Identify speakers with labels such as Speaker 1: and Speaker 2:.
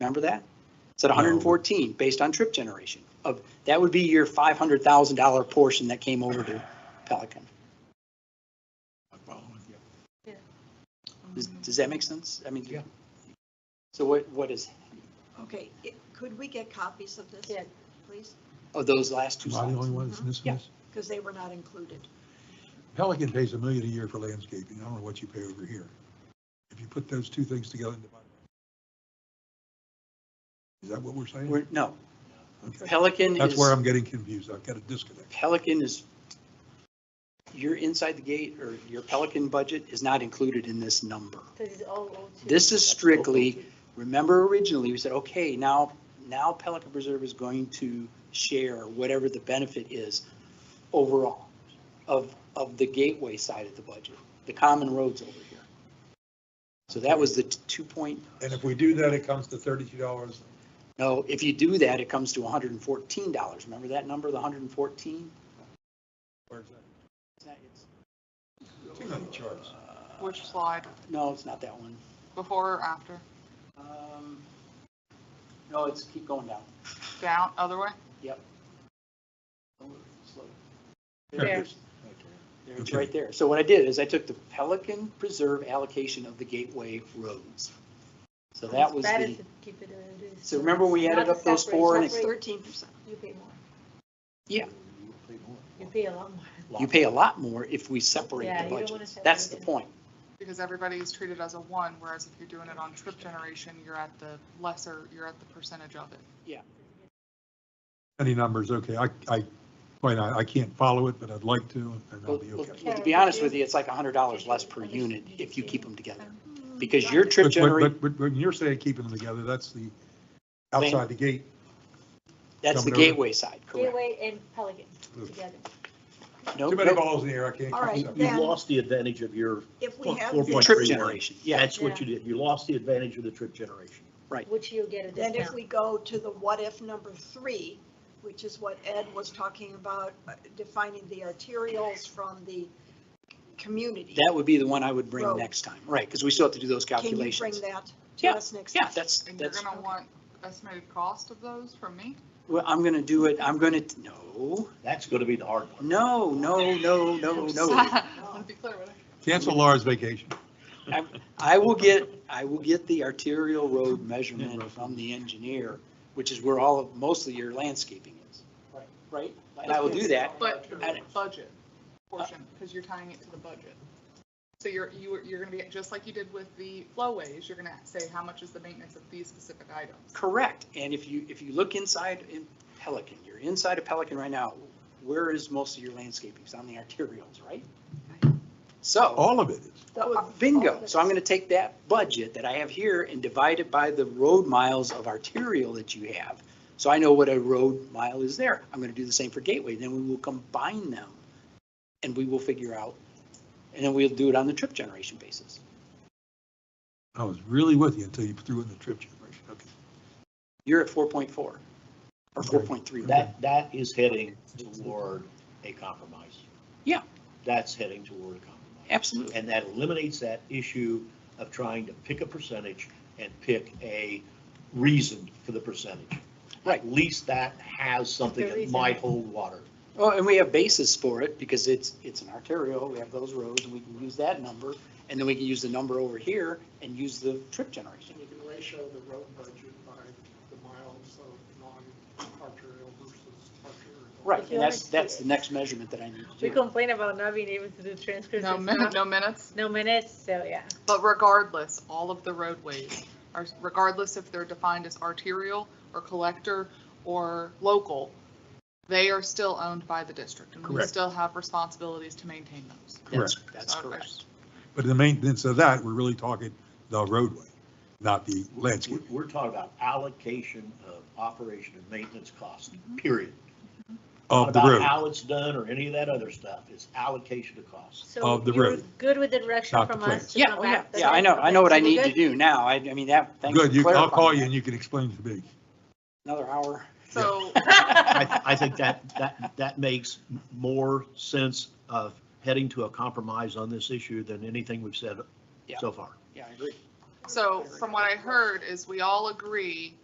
Speaker 1: Remember that? It's at 114 based on trip generation of, that would be your $500,000 portion that came over to Pelican. Does, does that make sense? I mean,
Speaker 2: Yeah.
Speaker 1: so what, what is,
Speaker 3: Okay, i- could we get copies of this,
Speaker 4: Yeah.
Speaker 3: please?
Speaker 1: of those last two
Speaker 2: Am I the only
Speaker 1: slides?
Speaker 2: one that's missing this?
Speaker 3: Because they were not included.
Speaker 2: Pelican pays a million a year for landscaping. I don't know what you pay over here. If you put those two things together and divide. it- Is that what we're saying?
Speaker 1: We're, no,
Speaker 2: Okay.
Speaker 1: Pelican
Speaker 2: That's
Speaker 1: is,
Speaker 2: where I'm getting confused. I've got a disconnect.
Speaker 1: Pelican is, your inside the gate or your Pelican budget is not included in this number. This is strictly, remember originally, we said, okay, now, now Pelican Preserve is going to share whatever the benefit is overall of, of the gateway side of the budget, the common roads over here. So that was the t- two point,
Speaker 2: And if we do that, it comes to thirty-two dollars.
Speaker 1: no, if you do that, it comes to hundred and fourteen dollars. Remember that number, the hundred and fourteen?
Speaker 2: Too many charts.
Speaker 5: Which slide,
Speaker 1: uh, No, it's not that one.
Speaker 5: before or after?
Speaker 1: Um, No, it's, keep going down.
Speaker 5: Down, other way?
Speaker 1: Slow.
Speaker 4: There.
Speaker 1: There, It's
Speaker 2: Okay.
Speaker 1: right there. So what I did is I took the Pelican Preserve allocation of the gateway roads. So that was the, so remember when we added up those four and
Speaker 3: It's
Speaker 1: it's,
Speaker 4: Separate.
Speaker 3: thirteen percent.
Speaker 4: You pay more.
Speaker 1: Yeah.
Speaker 4: You pay a lot more.
Speaker 1: you pay a lot more if we separate
Speaker 4: Yeah,
Speaker 1: the
Speaker 4: you don't wanna
Speaker 1: budgets.
Speaker 4: separate
Speaker 1: That's the
Speaker 4: it.
Speaker 1: point.
Speaker 5: Because everybody is treated as a one, whereas if you're doing it on trip generation, you're at the lesser, you're at the percentage of it.
Speaker 2: Any numbers, okay. I, I, quite, I I can't follow it, but I'd like to, and I'll
Speaker 1: Well,
Speaker 2: be
Speaker 1: well,
Speaker 2: okay.
Speaker 1: To be honest with you, it's like a hundred dollars less per unit if you keep them together. Because your
Speaker 3: you're
Speaker 1: trip
Speaker 2: But- but-
Speaker 1: generation,
Speaker 2: But, but when you're saying keeping them together, that's the outside the gate.
Speaker 1: that's the
Speaker 2: coming over.
Speaker 1: gateway side, correct?
Speaker 4: Gateway and Pelican together.
Speaker 1: No,
Speaker 2: Too many
Speaker 1: no,
Speaker 2: balls in the air, I can't. keep
Speaker 3: All right,
Speaker 2: them separate.
Speaker 6: You
Speaker 3: Then-
Speaker 6: lost the advantage of your,
Speaker 3: If we
Speaker 6: Four-
Speaker 3: have
Speaker 6: four
Speaker 3: this,
Speaker 6: point
Speaker 1: trip
Speaker 6: three one.
Speaker 1: generation, yeah.
Speaker 6: that's what you did, you lost the advantage of the trip generation.
Speaker 4: Which you'll get a
Speaker 3: then if
Speaker 4: discount.
Speaker 3: we go to the what if number three, which is what Ed was talking about, uh, defining the arterials from the community.
Speaker 1: That would be the one I would bring
Speaker 3: Road.
Speaker 1: next time, right? Because we still have to do those
Speaker 3: Can you bring
Speaker 1: calculations.
Speaker 3: that to
Speaker 1: Yeah,
Speaker 3: us next?
Speaker 1: Yeah,
Speaker 3: time?
Speaker 1: that's,
Speaker 5: And you're
Speaker 1: that's.
Speaker 5: gonna want estimated cost of those from me?
Speaker 1: Well, I'm gonna do it, I'm gonna, no,
Speaker 6: That's gonna be the hard part.
Speaker 1: no, no, no, no, no.
Speaker 5: I wanna be clear with it.
Speaker 2: Cancel Laura's vacation.
Speaker 1: I will get, I will get the arterial road measurement from the engineer, which is where all of, most of your landscaping is. Right? And I will do that.
Speaker 5: But
Speaker 1: I-
Speaker 5: budget portion, because you're tying it to the budget. So you're, you're, you're gonna be, just like you did with the flowways, you're gonna say, how much is the maintenance of these specific items?
Speaker 1: Correct. And if you, if you look inside in Pelican, you're inside of Pelican right now, where is most of your landscaping? It's on the arterials, right? So,
Speaker 2: All of it is.
Speaker 3: The- oh,
Speaker 1: bingo. So I'm gonna take that budget that I have here and divide it by the road miles of arterial that you have. So I know what a road mile is there. I'm gonna do the same for Gateway. Then we will combine them and we will figure out, and then we'll do it on the trip generation basis.
Speaker 2: I was really with you until you threw in the trip generation. Okay.
Speaker 1: You're at 4.4 or 4.3.
Speaker 6: That, that is heading toward a compromise.
Speaker 1: Yeah.
Speaker 6: That's heading toward a compromise.
Speaker 1: Absolutely.
Speaker 6: And that eliminates that issue of trying to pick a percentage and pick a reason for the percentage.
Speaker 1: Right.
Speaker 6: At least that has something
Speaker 4: The
Speaker 6: that
Speaker 4: reason.
Speaker 6: might hold water.
Speaker 1: Well, Oh, and we have basis for it because it's, it's an arterial, we have those roads and we can use that number. And then we can use the number over here and use the trip generation.
Speaker 7: And you can ratio the road budget by the miles of non-arterial versus arterial.
Speaker 1: Right, and that's, that's the next measurement that I need to
Speaker 4: We
Speaker 1: do.
Speaker 4: complain about not being able to do transcripts.
Speaker 5: No
Speaker 4: and
Speaker 5: minutes,
Speaker 4: stuff.
Speaker 5: no minutes?
Speaker 4: No minutes, so yeah.
Speaker 5: But regardless, all of the roadways are, regardless if they're defined as arterial or collector or local, they are still owned by the district and we
Speaker 2: Correct.
Speaker 5: still have responsibilities to maintain those.
Speaker 1: That's- That's
Speaker 5: So I- I
Speaker 1: correct.
Speaker 5: just-
Speaker 2: But the maintenance of that, we're really talking the roadway, not the
Speaker 6: We're,
Speaker 2: landscape.
Speaker 6: we're talking about allocation of operation and maintenance cost,
Speaker 1: Mm-hmm.
Speaker 6: period.
Speaker 2: of the road.
Speaker 6: About how it's done or any of that other stuff, it's allocation of costs.
Speaker 4: So
Speaker 2: Of the
Speaker 4: you're
Speaker 2: road,
Speaker 4: Good with the direction
Speaker 2: not the
Speaker 4: from
Speaker 2: plans.
Speaker 4: us to
Speaker 1: Yeah,
Speaker 4: come
Speaker 1: oh, yeah,
Speaker 4: back.
Speaker 1: yeah, I know, I know what I need to
Speaker 4: do.
Speaker 1: do now. I, I mean, that, thanks for
Speaker 2: Good, you, I'll
Speaker 1: clarifying
Speaker 2: call you
Speaker 1: that.
Speaker 2: and you can explain to me.
Speaker 1: Another hour.
Speaker 5: So,
Speaker 6: I, I think that, that, that makes more sense of heading to a compromise on this issue than anything we've said
Speaker 1: Yeah.
Speaker 6: so far.
Speaker 1: Yeah, I agree.
Speaker 5: So from what I heard is we all agree